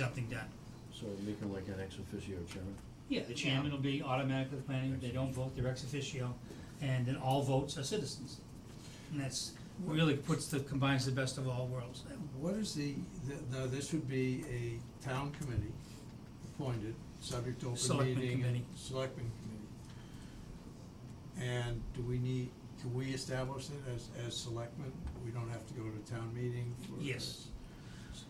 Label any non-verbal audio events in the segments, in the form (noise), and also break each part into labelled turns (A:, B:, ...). A: something done.
B: So make him like an ex officio chairman?
A: Yeah, the chairman will be automatically planning, they don't vote, they're ex officio, and then all votes are citizens. And that's, really puts the, combines the best of all worlds.
C: What is the, th- now, this would be a town committee appointed, subject to open
A: Selectmen
C: meeting and
A: committee.
C: selectmen committee. And do we need, can we establish it as, as selectmen? We don't have to go to town meeting for
A: Yes.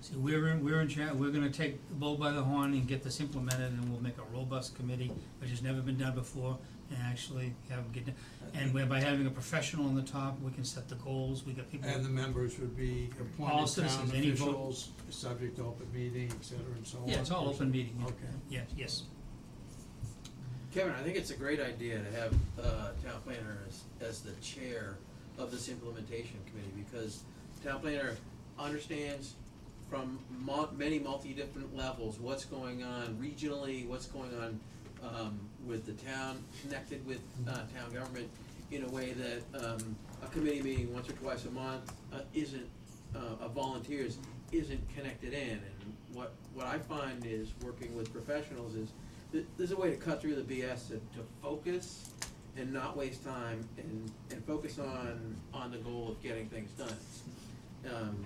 A: See, we're in, we're in cha, we're gonna take the bull by the horn and get this implemented, and we'll make a robust committee, which has never been done before, and actually have, them get, done. and whereby having a professional on the top, we can set the goals, we got people.
C: And the members would be
A: All
C: appointed town
A: citizens, any vote.
C: officials, subject to open meeting, et cetera, and so on.
A: Yeah, it's all open meeting, yeah.
C: Okay.
A: yeah, yes,
D: Kevin, I think it's a great idea to have uh town planner as, as the chair of this implementation committee, because town planner understands from mu- many multi different levels, what's going on regionally, what's going on um with the town, connected with uh town government in a way that um a committee meeting once or twice a month uh isn't, uh of volunteers, isn't connected in. And what what I find is working with professionals is th- there's a way to cut through the BS to, to focus and not waste time and, and focus on, on the goal of getting things done. Um,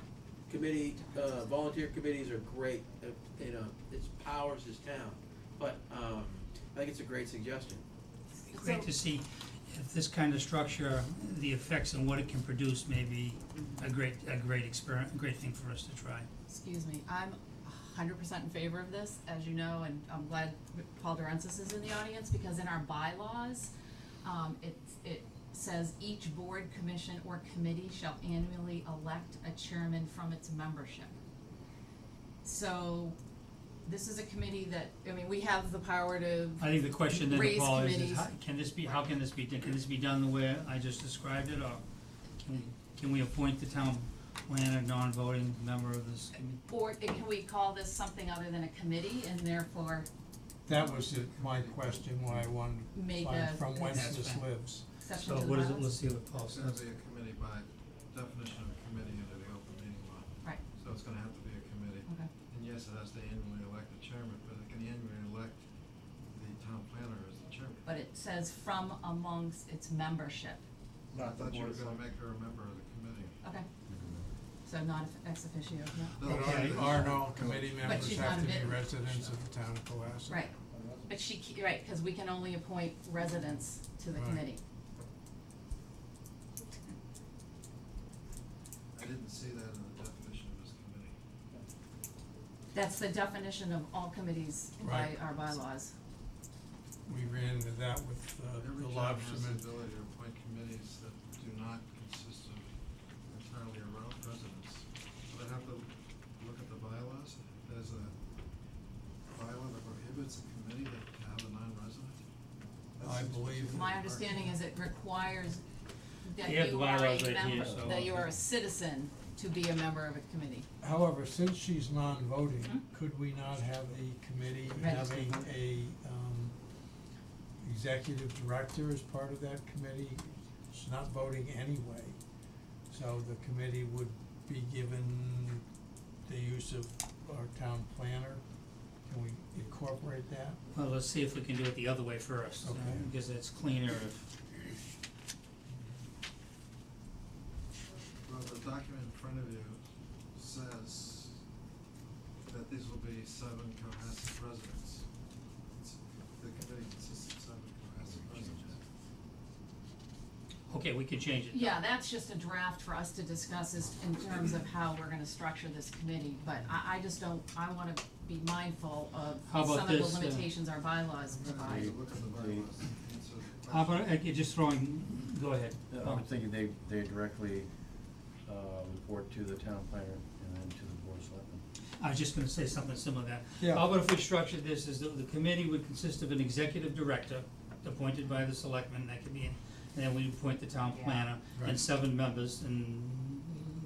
D: committee, uh, volunteer committees are great, uh, you know, it's powers this town, but, um, I think it's a great suggestion.
A: It'd be great to see if this kind of structure, the effects and what it can produce may be a great, a great experiment, a great thing for us to try.
E: Excuse me, I'm hundred percent in favor of this, as you know, and I'm glad Paul Durensis is in the audience, because in our bylaws, um, it, it says each board, commission, or committee shall annually elect a chairman from its membership. So, this is a committee that, I mean, we have the power to,
A: I think the question then,
E: Raise
A: Paul, is, is
E: committees.
A: how, can this be, how can this be, done? can this be done the way I just described it, or can, can we appoint the town planner, non-voting member of this committee?
E: or it- can we call this something other than a committee, and therefore
C: That was it- my question, why I wanted to
E: Make
C: find
E: a-
C: from whence
A: That's
C: this
A: fine.
C: lives.
E: exception to the bylaws?
A: So what is it, let's see what Paul
F: It's gonna
A: says.
F: be a committee by definition of a committee under the open meeting law.
E: Right.
F: So it's gonna have to be a committee.
E: Okay.
F: And yes, it has to annually elect the chairman, but it can annually elect the town planner as the chairman.
E: But it says from amongst its membership,
F: I thought you were gonna make her a member of the committee.
E: okay? So not ex officio, no.
F: No, no,
A: Okay.
F: no.
C: Our and all committee
E: But
C: members
E: she's
C: have
E: not
C: to
E: a
C: be
E: bit-
C: residents of the town of Cohasset.
E: Right, but she, ca- right, cause we can only appoint residents to the
C: Right.
E: committee.
F: I didn't see that in the definition of this committee.
E: That's the definition of all committees by
C: Right.
E: our bylaws.
C: We ran into that with uh,
F: Every
C: the
F: town has the
C: lobstermen.
F: ability to appoint committees that do not consist of entirely around residents. But I have to look at the bylaws, there's a bylaw that prohibits a committee that to have a non-resident. That
C: I
F: seems
C: believe-
F: particularly
E: My
F: hard.
E: understanding is it requires that
A: You have the
E: you are
A: bylaws
E: a
A: right here,
E: member,
A: so-
E: that you are a citizen to be a member of a committee.
C: However, since she's non-voting,
E: Hmm?
C: could we not have the committee
E: Right.
C: having a, um, executive director as part of that committee? She's not voting anyway, so the committee would be given the use of our town planner. Can we incorporate that?
A: Well, let's see if we can do it the other way first, uh,
C: Okay.
A: because it's cleaner if,
F: Well, the document in front of you says that these will be seven Cohasset residents. It's- The committee consists of seven Cohasset residents.
A: okay, we can change it.
E: Yeah, that's just a draft for us to discuss is in terms of how we're gonna structure this committee, but I, I just don't, I wanna be mindful of
A: How about
E: some of the
A: this, uh,
E: limitations our bylaws
F: I'm
E: provide.
F: gonna need to look at the
B: The-
F: bylaws, and answer the
A: How about,
F: question.
A: uh, just throwing, go ahead.
B: Uh, I'm thinking they, they directly, uh, report to the town planner and then to the board of selectmen.
A: I was just gonna say something similar to that.
C: Yeah.
A: How about if we structured this as the, the committee would consist of an executive director appointed by the selectmen, that could be, in- and then we appoint the town
E: Yeah.
A: planner and
C: Right.
A: seven members and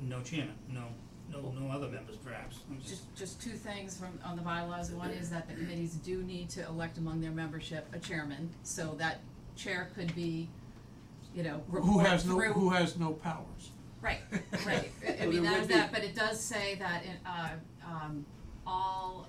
A: no chairman, no, no, no other members perhaps. I'm just-
E: Just, just two things from, on the bylaws, one is that the committees do need to elect among their membership a chairman, so that chair could be, you know,
C: Who
E: report
C: has no,
E: through-
C: who has no powers? (laughs)
E: Right, right, I- I
D: Well, there
E: mean, that
D: would
E: is that, but it does say that in, uh, um, all